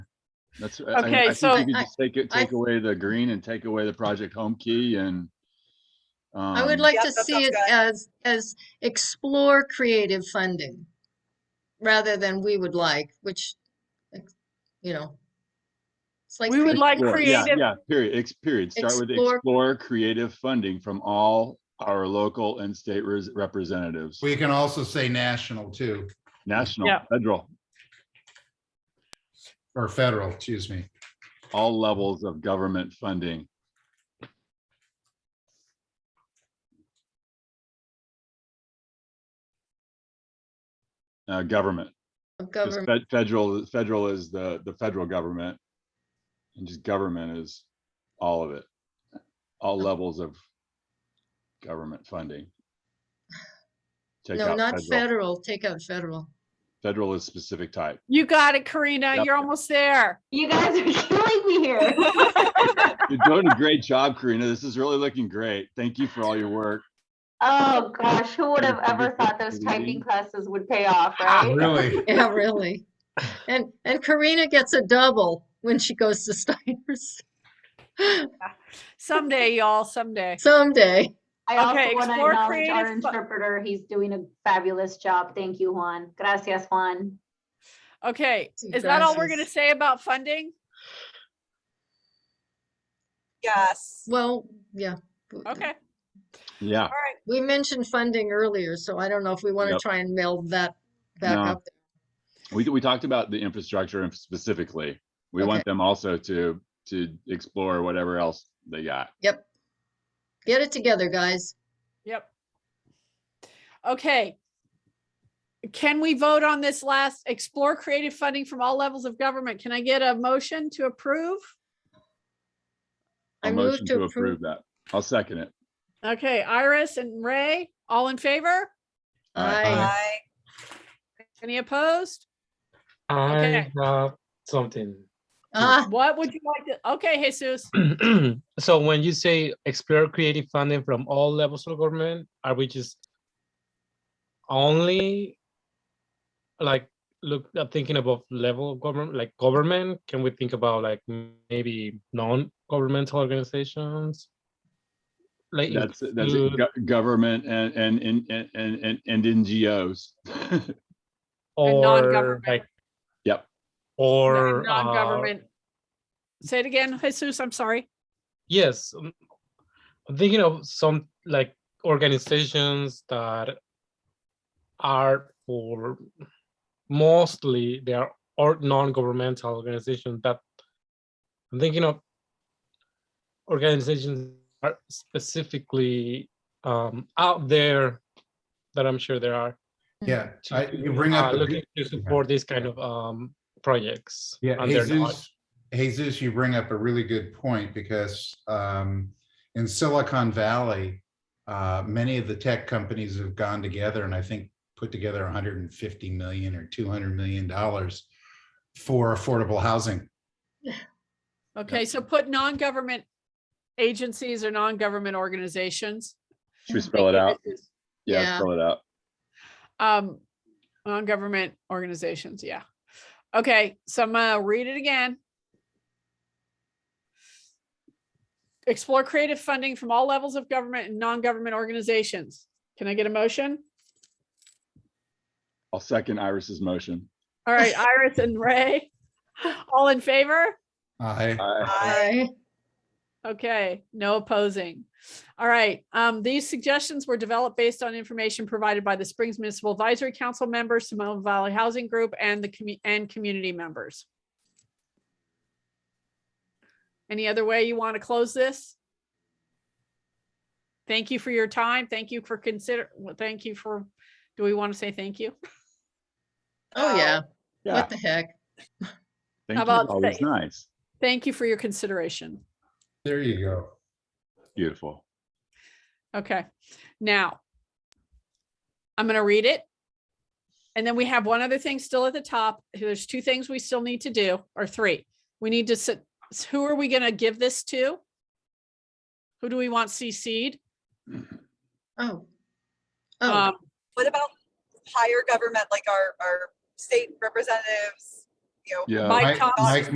That's, I- I- Okay, I think so- you could just Take it, I- take away the green and take away the project home key and. I would um, like Yeah, to that see sounds it good. as, as explore creative funding rather than we would like, which, ex- you know. It's like, We would crea- like explore, yeah, creative- Yeah, period, ex, period. Start with Explore- explore creative funding from all our local and state res- representatives, We can also say national too, national, Yeah. federal, or federal, excuse me. all levels of government funding. Uh, government. of 'Cause government. fed- Federal, federal is the, the federal government. And just government is all of it. All levels of government funding. Take No, out not federal. federal, take out federal. Federal is specific type. You got it, Karina. Yep. You're almost there. You guys are killing me here. You're doing a great job, Karina. This is really looking great. Thank you for all your work. Oh, gosh, who would have Your ever favorite thought those reading? typing classes would pay off, Ah, right? Really? Yeah, really. And, and Karina gets a double when she goes to Steiner's Someday, y'all, someday. someday. I Okay, also want to explore acknowledge our creative fu- interpreter. He's doing a fabulous job. Thank you, Juan. Gracias, Juan. Okay, See, is that all we're gracias. gonna say about funding? Yes. Well, yeah. w- Okay, Yeah, all right. We mentioned funding earlier, so I don't know if we want to Yep. try and meld that back No. up. we, we talked about the infrastructure and specifically. We Okay. want them also to, to explore whatever else they got. Yep. Get it together, guys. Yep. Okay. Can we vote on this last, explore creative funding from all levels of government? Can I get a motion to approve? I A move motion to to approve- approve that. I'll second it. Okay, Iris and Ray, all in favor? Aye. I, Aye. Any opposed? I Okay. have something. ah, What would you like to, okay, Jesus, So when you say explore creative funding from all levels of government, are we just only like look uh, thinking about level of government, like government? Can we think about like m- maybe non-governmental organizations? Like That's, that's include- go- government and, and, and, and- and, and, and NGOs. And or non-government. like. Yep. Or. uh, non-government. Say it again, Jesus, I'm sorry. Yes, um, I'm thinking of some like organizations that are for mostly they are or non-governmental organizations that I'm thinking of organizations are specifically um, out there that I'm sure there are Yeah, I, you bring uh, up, looking a- to support these kind of um, projects. yeah, and they're not. Jesus, Jesus, you bring up a really good point because um, in Silicon Valley, uh, many of the tech companies have gone together and I think put together 150 million or 200 million dollars for affordable housing. Okay, so put non-government agencies or non-government organizations. Should we spell it out? Yeah. Yeah, spell it out. Um, non-government organizations, yeah. Okay, so I'm gonna read it again. Explore creative funding from all levels of government and non-government organizations. Can I get a motion? I'll second Iris's motion. All right, Iris and Ray, all in favor? I, I- Aye. I, Okay, no opposing. All right, um, these suggestions were developed based on information provided by the Springs Municipal Advisory Council members, Simone Valley Housing Group, and the commu- and community members. Any other way you want to close this? Thank you for your time. Thank you for consider, well, thank you for, do we want to say thank you? oh yeah, Yeah, what the heck? thank you. about Always say- nice. Thank you for your consideration. there you go. Beautiful. Okay, now. I'm gonna read it. And then we have one other thing still at the top. There's two things we still need to do, or three. We need to, sit- who are we gonna give this to? Who do we want CC'd? Oh. Oh, Um, What about higher government, like our, our state representatives, you know, Yeah. Mike Mike- Thompson. Mike